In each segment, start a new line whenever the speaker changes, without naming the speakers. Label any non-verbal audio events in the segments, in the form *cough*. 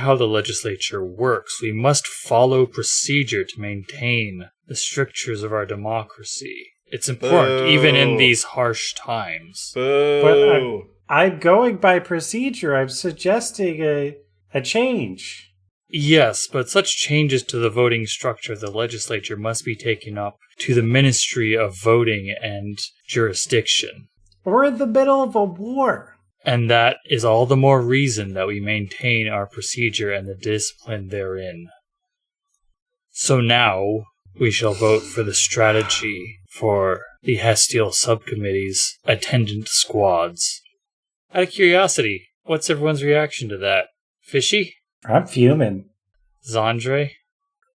how the legislature works. We must follow procedure to maintain the strictures of our democracy. It's important, even in
Boo.
these harsh times.
Boo.
I'm going by procedure. I'm suggesting a a change.
Yes, but such changes to the voting structure of the legislature must be taken up to the Ministry of Voting and Jurisdiction.
We're in the middle of a war.
And that is all the more reason that we maintain our procedure and the discipline therein. So now we shall vote for the strategy for the Hestial Subcommittee's attendant squads. Out of curiosity, what's everyone's reaction to that? Fishy?
I'm fuming. *laughs*
Zandre?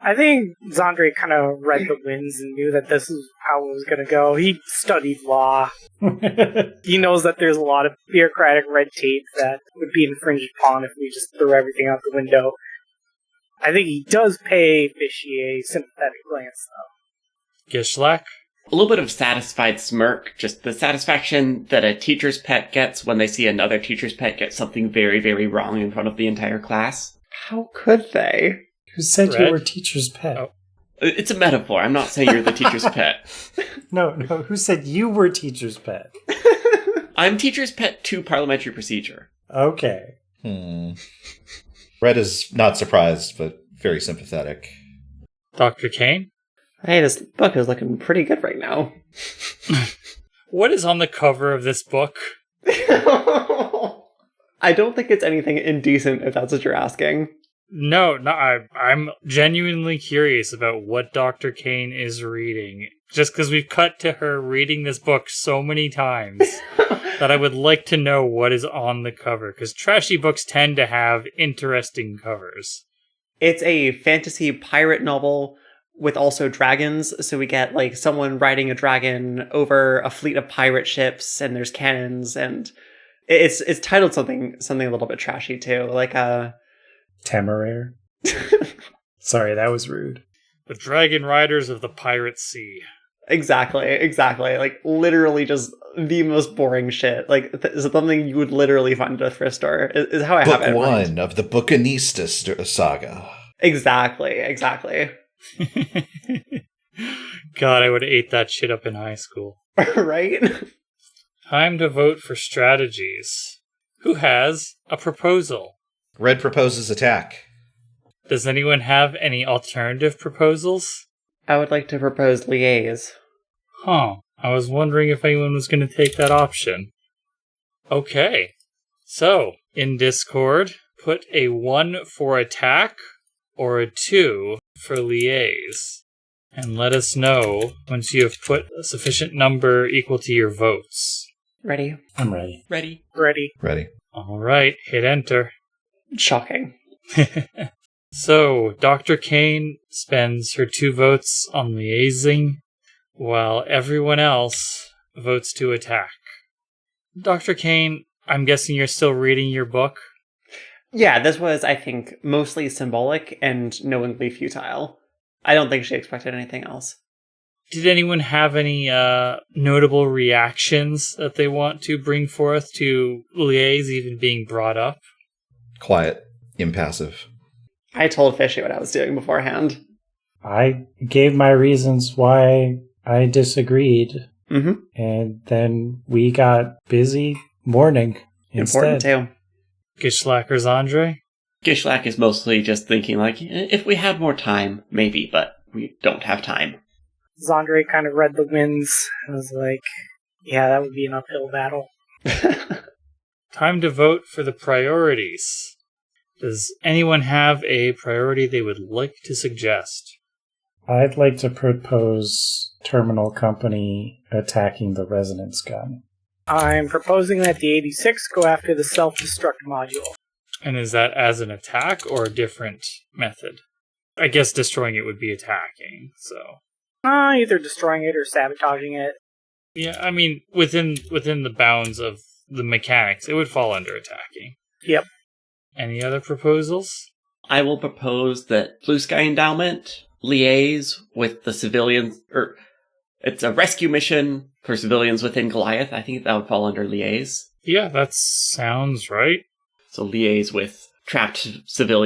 I think Zandre kind of read the winds and knew that this is how it was going to go. He studied law. He knows that there's a lot of bureaucratic red tape that would be infringed upon if we just threw everything out the window. I think he does pay Fishy a sympathetic glance, though.
Gishlak?
A little bit of satisfied smirk, just the satisfaction that a teacher's pet gets when they see another teacher's pet get something very, very wrong in front of the entire class.
How could they?
Who said you
Red?
were teacher's pet?
Oh.
I- It's a metaphor. I'm not saying you're the teacher's pet.
No, no. Who said you were teacher's pet?
I'm teacher's pet to parliamentary procedure.
Okay.
Hmm. Red is not surprised, but very sympathetic.
Dr. Kane?
Hey, this book is looking pretty good right now. *laughs*
What is on the cover of this book?
I don't think it's anything indecent if that's what you're asking.
No, no, I, I'm genuinely curious about what Dr. Kane is reading. Just because we've cut to her reading this book so many times that I would like to know what is on the cover. Because trashy books tend to have interesting covers.
It's a fantasy pirate novel with also dragons, so we get like someone riding a dragon over a fleet of pirate ships and there's cannons and it's it's titled something something a little bit trashy too, like uh
Temeraire. Sorry, that was rude.
The Dragon Riders of the Pirate Sea.
Exactly, exactly. Like literally just the most boring shit. Like th- something you would literally find at a thrift store is, is how I have it.
Book
in mind.
one of the Bucanista st- saga.
Exactly, exactly. *laughs*
God, I would have ate that shit up in high school.
right?
Time to vote for strategies. Who has a proposal?
Red proposes attack.
Does anyone have any alternative proposals?
I would like to propose liaise.
Huh. I was wondering if anyone was going to take that option. Okay. So, in Discord, put a 1 for attack or a 2 for liaise. And let us know once you have put a sufficient number equal to your votes.
Ready?
I'm ready.
Ready?
Ready?
Ready.
All right, hit enter.
Shocking.
so, Dr. Kane spends her two votes on liaising, while everyone else votes to attack. Dr. Kane, I'm guessing you're still reading your book.
Yeah, this was, I think, mostly symbolic and knowingly futile. I don't think she expected anything else.
Did anyone have any uh, notable reactions that they want to bring forth to liaise even being brought up?
Quiet. Impassive.
I told Fishy what I was doing beforehand.
I gave my reasons why I disagreed,
Mm-hmm.
and then we got busy mourning
Important
instead.
too.
Gishlackers Andre?
Gishlak is mostly just thinking, like, "Eh, if we had more time, maybe, but we don't have time.
Zandre kind of read the winds and was like, yeah, that would be an uphill battle.
Time to vote for the priorities. Does anyone have a priority they would like to suggest?
I'd like to propose Terminal Company attacking the resonance gun.
I'm proposing that the 86 go after the self destruct module.
And is that as an attack or a different method? I guess destroying it would be attacking. So
Uh, either destroying it or sabotaging it.
yeah, I mean within within the bounds of the mechanics, it would fall under attacking.
Yep.
Any other proposals?
I will propose that Blue Sky Endowment liaise with the civilians, or it's a rescue mission for civilians within Goliath. I think that would fall under liaise.
Yeah, that sounds right.
So liaise with trapped civilians.